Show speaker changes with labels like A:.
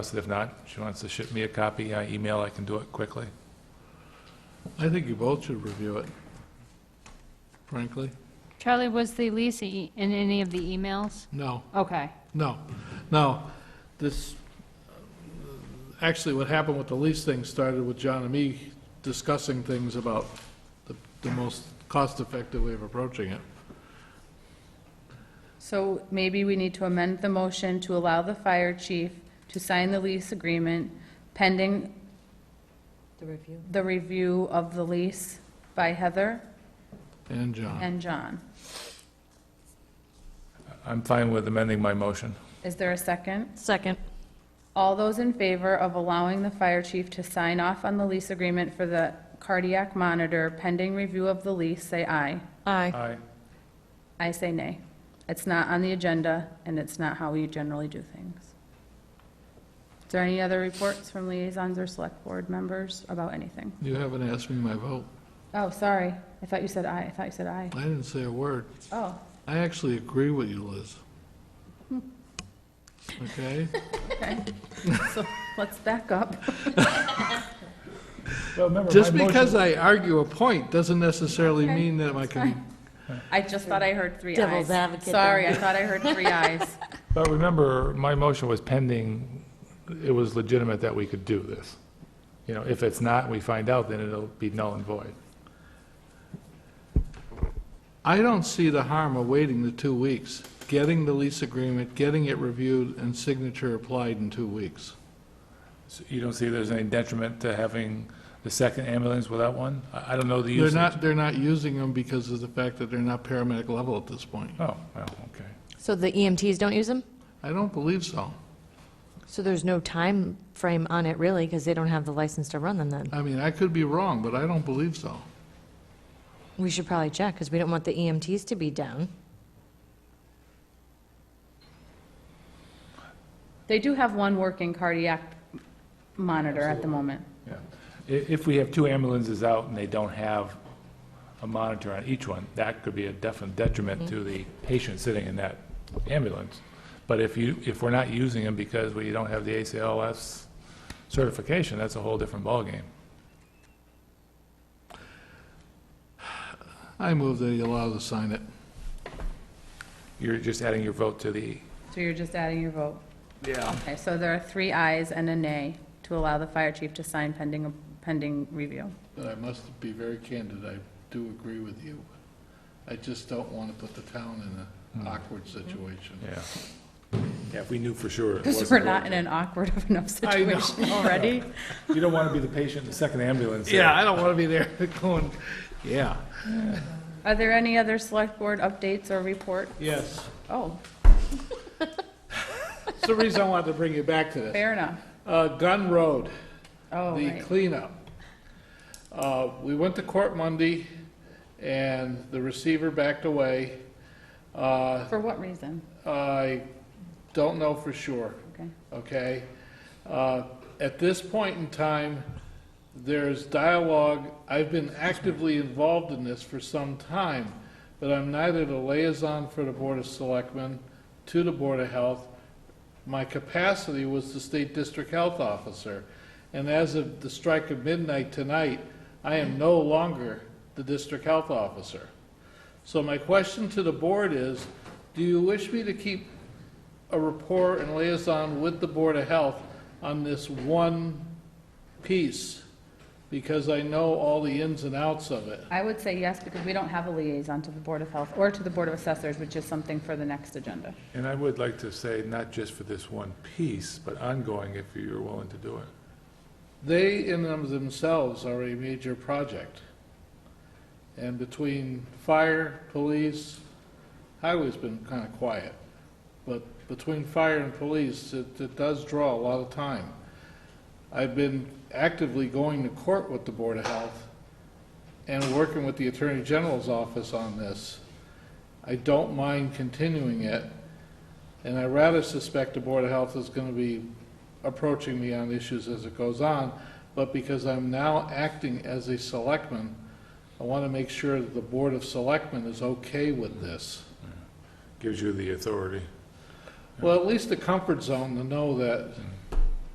A: If not, she wants to ship me a copy, I email, I can do it quickly.
B: I think you both should review it, frankly.
C: Charlie, was the lease e- in any of the emails?
B: No,
C: Okay.
B: no, no. This, actually, what happened with the lease thing started with John and me discussing things about the, the most cost-effective way of approaching it.
D: So maybe we need to amend the motion to allow the fire chief to sign the lease agreement pending
E: The review.
D: the review of the lease by Heather
B: And John,
D: and John.
A: I'm fine with amending my motion.
D: Is there a second?
E: Second.
D: All those in favor of allowing the fire chief to sign off on the lease agreement for the cardiac monitor pending review of the lease, say aye.
E: Aye.
A: Aye.
D: I say nay. It's not on the agenda, and it's not how we generally do things. Is there any other reports from liaisons or select board members about anything?
B: you haven't asked me my vote.
D: Oh, sorry, I thought you said aye, I thought you said aye.
B: I didn't say a word.
D: Oh,
B: I actually agree with you, Liz. Okay?
D: so let's back up.
B: Just because I argue a point doesn't necessarily
D: Okay,
B: mean that I
D: that's
B: can
D: fine. I just thought I heard three ayes.
E: Devil's advocate there.
D: Sorry, I thought I heard three ayes.
A: But remember, my motion was pending, it was legitimate that we could do this. You know, if it's not, we find out, then it'll be null and void.
B: I don't see the harm of waiting the two weeks, getting the lease agreement, getting it reviewed, and signature applied in two weeks.
A: So You don't see there's any detriment to having the second ambulance without one? I I don't know the
B: They're
A: usage.
B: not, they're not using them because of the fact that they're not paramedic level at this point.
A: Oh, well, okay.
E: So the EMTs don't use them?
B: I don't believe so.
E: So there's no time frame on it really, because they don't have the license to run them then?
B: I mean, I could be wrong, but I don't believe so.
E: We should probably check, because we don't want the EMTs to be down.
D: They do have one working cardiac monitor at the moment.
A: Yeah. I- If we have two ambulances out and they don't have a monitor on each one, that could be a definite detriment
D: Mm-hmm.
A: to the patient sitting in that ambulance. But if you, if we're not using them because we don't have the ACLS certification, that's a whole different ballgame.
B: I move that you allow to sign it.
A: You're just adding your vote to the,
D: So you're just adding your vote.
A: yeah,
D: Okay, so there are three ayes and a nay to allow the fire chief to sign pending, pending review.
B: But I must be very candid, I do agree with you. I just don't want to put the town in an awkward situation.
A: yeah. Yeah, if we knew for sure. it
D: Because we're
A: wasn't
D: not in
A: working.
D: an awkward of enough
B: I know.
D: situation already.
A: You don't want to be the patient in the second ambulance.
B: Yeah, I don't want to be there going, yeah.
D: Are there any other select board updates or report?
B: Yes.
D: Oh,
B: It's the reason I wanted to bring you back to this.
D: fair enough.
B: Uh, Gun Road,
D: Oh,
B: the
D: right.
B: cleanup. Uh, We went to court Monday, and the receiver backed away. Uh,
D: For what reason?
B: I don't know for sure,
D: Okay.
B: okay? Uh, At this point in time, there's dialogue, I've been actively involved in this for some time, but I'm neither the liaison for the Board of Selectmen to the Board of Health. My capacity was the State District Health Officer. And as of the strike of midnight tonight, I am no longer the District Health Officer. So my question to the board is, do you wish me to keep a rapport and liaison with the Board of Health on this one piece? Because I know all the ins and outs of it.
D: I would say yes, because we don't have a liaison to the Board of Health or to the Board of Assessors, which is something for the next agenda.
A: And I would like to say, not just for this one piece, but ongoing, if you're willing to do it.
B: They in and of themselves are a major project. And between fire, police, highway's been kind of quiet. But between fire and police, it, it does draw a lot of time. I've been actively going to court with the Board of Health and working with the Attorney General's office on this. I don't mind continuing it, and I rather suspect the Board of Health is going to be approaching me on issues as it goes on, but because I'm now acting as a selectman, I want to make sure that the Board of Selectmen is okay with this.
A: Gives you the authority.
B: Well, at least the comfort zone to know that